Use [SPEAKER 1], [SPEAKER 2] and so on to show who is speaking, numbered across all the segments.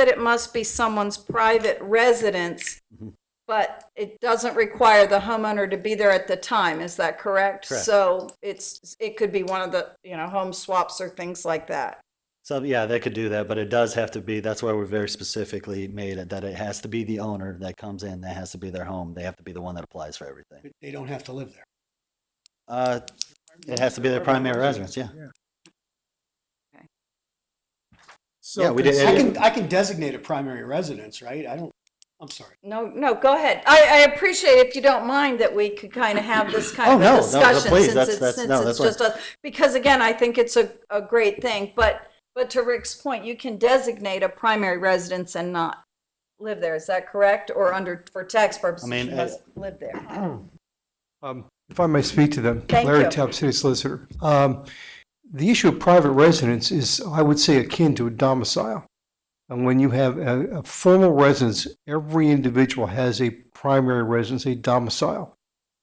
[SPEAKER 1] that it must be someone's private residence,
[SPEAKER 2] Mm-hmm.
[SPEAKER 1] but it doesn't require the homeowner to be there at the time, is that correct?
[SPEAKER 2] Correct.
[SPEAKER 1] So it's, it could be one of the, you know, home swaps or things like that.
[SPEAKER 2] So yeah, they could do that, but it does have to be, that's why we're very specifically made it, that it has to be the owner that comes in, that has to be their home. They have to be the one that applies for everything.
[SPEAKER 3] They don't have to live there.
[SPEAKER 2] Uh, it has to be their primary residence, yeah.
[SPEAKER 4] So
[SPEAKER 2] Yeah, we did-
[SPEAKER 3] I
[SPEAKER 4] consider-
[SPEAKER 3] can, I can designate a primary residence, right? I don't, I'm sorry.
[SPEAKER 1] No, no, go ahead. I, I appreciate if you don't mind that we could kind of have this
[SPEAKER 2] Oh,
[SPEAKER 1] kind of a
[SPEAKER 2] no, no,
[SPEAKER 1] discussion
[SPEAKER 2] please,
[SPEAKER 1] since
[SPEAKER 2] that's-
[SPEAKER 1] it's,
[SPEAKER 2] that's-
[SPEAKER 1] since
[SPEAKER 2] no,
[SPEAKER 1] it's
[SPEAKER 2] that's fine.
[SPEAKER 1] just us. Because again, I think it's a, a great thing, but, but to Rick's point, you can designate a primary residence and not live there, is that correct? Or under, for tax purposes,
[SPEAKER 2] mean,
[SPEAKER 1] you
[SPEAKER 2] uh, it-
[SPEAKER 1] must live there.
[SPEAKER 4] um, If I may speak to them,
[SPEAKER 1] Thank you.
[SPEAKER 4] Larry Tapp, City Solicitor. Um, The issue of private residence is, I would say, akin to a domicile. And when you have a a formal residence, every individual has a primary residence, a domicile.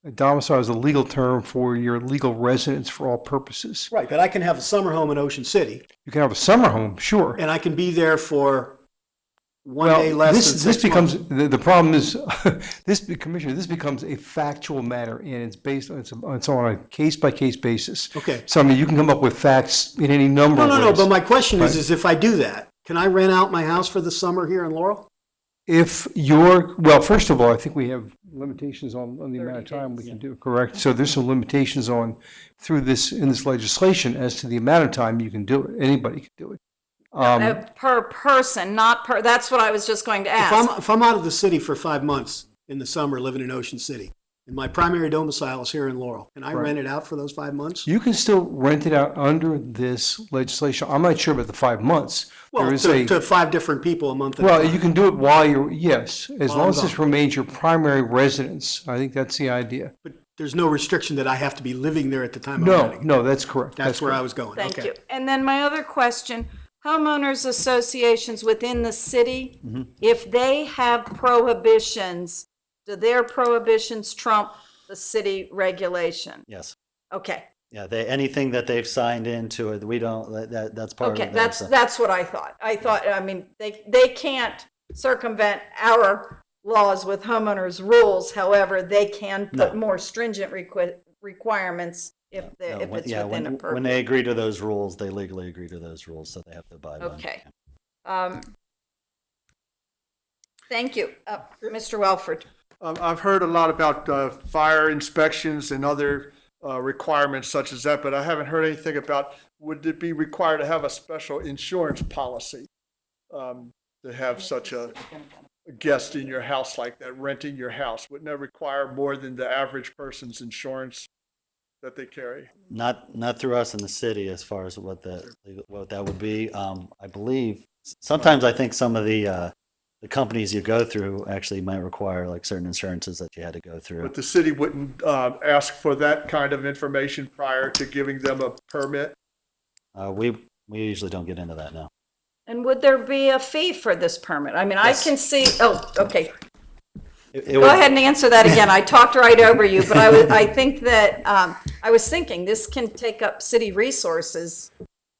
[SPEAKER 4] A domicile is a legal term for your legal residence for all purposes.
[SPEAKER 3] Right, but I can have a summer home in Ocean City
[SPEAKER 4] You can have a summer home, sure.
[SPEAKER 3] and I can be there for one
[SPEAKER 4] Well,
[SPEAKER 3] day less than
[SPEAKER 4] this- This
[SPEAKER 3] six months.
[SPEAKER 4] becomes, the, the problem is, this, be- Commissioner, this becomes a factual matter, and it's based, on- it's, it's on a case-by-case basis.
[SPEAKER 3] Okay.
[SPEAKER 4] So I mean, you can come up with facts in any number
[SPEAKER 3] No,
[SPEAKER 4] of ways.
[SPEAKER 3] no, no, but my question is,
[SPEAKER 4] Right.
[SPEAKER 3] is if I do that, can I rent out my house for the summer here in Laurel?
[SPEAKER 4] If you're, well, first of all, I think we have limitations on, on the amount of time we can do, correct? So there's some limitations on, through this, in this legislation, as to the amount of time you can do it, anybody can do it.
[SPEAKER 1] Uh,
[SPEAKER 2] Um,
[SPEAKER 1] Per person, not per, that's what I was just going to
[SPEAKER 3] If
[SPEAKER 1] ask.
[SPEAKER 3] I'm, if I'm out of the city for five months in the summer, living in Ocean City, and my primary domicile is here in Laurel, can I rent it out for those five months?
[SPEAKER 4] You can still rent it out under this legislation, I'm not sure about the five months. There
[SPEAKER 3] Well,
[SPEAKER 4] is
[SPEAKER 3] to,
[SPEAKER 4] a-
[SPEAKER 3] to five different people a month. at a
[SPEAKER 4] Well,
[SPEAKER 3] time.
[SPEAKER 4] you can do it while you're, yes, as
[SPEAKER 3] While
[SPEAKER 4] long
[SPEAKER 3] I'm
[SPEAKER 4] as this
[SPEAKER 3] gone.
[SPEAKER 4] remains your primary residence. I think that's the idea.
[SPEAKER 3] But there's no restriction that I have to be living there at the time I'm
[SPEAKER 4] No,
[SPEAKER 3] renting.
[SPEAKER 4] no, that's correct.
[SPEAKER 3] That's where I
[SPEAKER 4] correct.
[SPEAKER 3] was going.
[SPEAKER 1] Thank
[SPEAKER 3] Okay.
[SPEAKER 1] you. And then my other question, homeowners associations within the city,
[SPEAKER 2] Mm-hmm.
[SPEAKER 1] if they have prohibitions, do their prohibitions trump the city regulation?
[SPEAKER 2] Yes.
[SPEAKER 1] Okay,
[SPEAKER 2] Yeah, they, anything that they've signed into it, we don't, that- that, that's part of it.
[SPEAKER 1] okay, that's, that's what I thought. I thought, I mean, they, they can't circumvent our laws with homeowners' rules. However, they can put
[SPEAKER 2] No.
[SPEAKER 1] more stringent requi- requirements if, they-
[SPEAKER 2] No,
[SPEAKER 1] if
[SPEAKER 2] when-
[SPEAKER 1] it's
[SPEAKER 2] yeah,
[SPEAKER 1] within a
[SPEAKER 2] when-
[SPEAKER 1] purview.
[SPEAKER 2] When they agree to those rules, they legally agree to those rules, so they have to abide by them.
[SPEAKER 1] Okay. Um, Thank you, Uh, Mr. Welford.
[SPEAKER 5] Um, I've heard a lot about uh, fire inspections and other uh, requirements such as that, but I haven't heard anything about would it be required to have a special insurance policy um, to have such a guest in your house like that, renting your house? Wouldn't that require more than the average person's insurance that they carry?
[SPEAKER 2] Not, not through us in the city as far as what the, what that would be. Um, I believe, sometimes I think some of the, uh, the companies you go through actually might require like certain insurances that you had to go through.
[SPEAKER 5] But the city wouldn't um, ask for that kind of information prior to giving them a permit?
[SPEAKER 2] Uh, we, we usually don't get into that now.
[SPEAKER 1] And would there be a fee for this permit? I mean, I
[SPEAKER 2] Yes.
[SPEAKER 1] can see, oh, okay.
[SPEAKER 2] It- it
[SPEAKER 1] Go
[SPEAKER 2] would-
[SPEAKER 1] ahead and answer that again. I talked right over you, but I was, I think that, um, I was thinking this can take up city resources,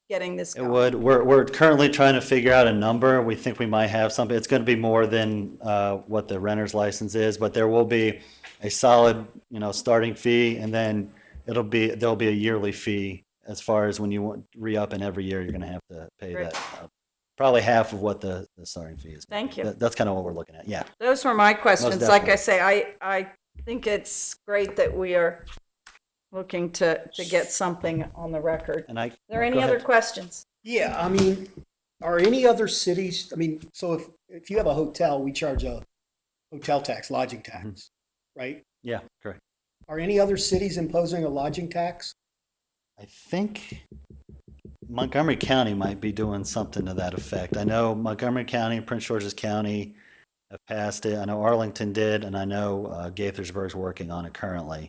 [SPEAKER 1] getting this
[SPEAKER 2] It
[SPEAKER 1] going.
[SPEAKER 2] would. We're, we're currently trying to figure out a number. We think we might have something. It's going to be more than uh, what the renter's license is, but there will be a solid, you know, starting fee, and then it'll be, there'll be a yearly fee as far as when you want, re-up, and every year you're going to have to pay
[SPEAKER 1] Right.
[SPEAKER 2] that. uh, Probably half of what the, the starting fee is.
[SPEAKER 1] Thank you.
[SPEAKER 2] That- That's kind of what we're looking at, yeah.
[SPEAKER 1] Those were my questions.
[SPEAKER 2] Most
[SPEAKER 1] Like I
[SPEAKER 2] definitely.
[SPEAKER 1] say, I, I think it's great that we are looking to, to get something on the record. Are
[SPEAKER 2] And I. Are
[SPEAKER 1] there any other questions?
[SPEAKER 3] Yeah, I mean, are any other cities, I mean, so if, if you have a hotel, we charge a hotel tax, lodging tax,
[SPEAKER 4] Mm-hmm.
[SPEAKER 3] right?
[SPEAKER 2] Yeah, correct.
[SPEAKER 3] Are any other cities imposing a lodging tax?
[SPEAKER 2] I think Montgomery County might be doing something to that effect. I know Montgomery County, Prince George's County have passed it. I know Arlington did, and I know uh, Gaithersburg's working on it currently.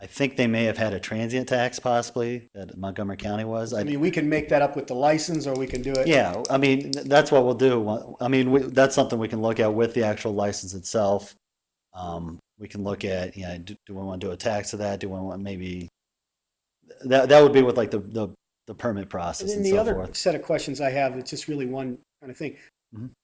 [SPEAKER 2] I think they may have had a transient tax possibly that Montgomery County was.
[SPEAKER 3] I
[SPEAKER 2] I,
[SPEAKER 3] mean, we can make that up with the license or we can do it.
[SPEAKER 2] yeah, I mean, th- that's what we'll do. I mean, we, that's something we can look at with the actual license itself. Um, we can look at, you know, do, do we want to do a tax to that? Do we want maybe, that, that would be with like the, the, the permit
[SPEAKER 3] And
[SPEAKER 2] process
[SPEAKER 3] then
[SPEAKER 2] and
[SPEAKER 3] the
[SPEAKER 2] so
[SPEAKER 3] other
[SPEAKER 2] forth.
[SPEAKER 3] set of questions I have, it's just really one kind of thing.
[SPEAKER 2] Mhm.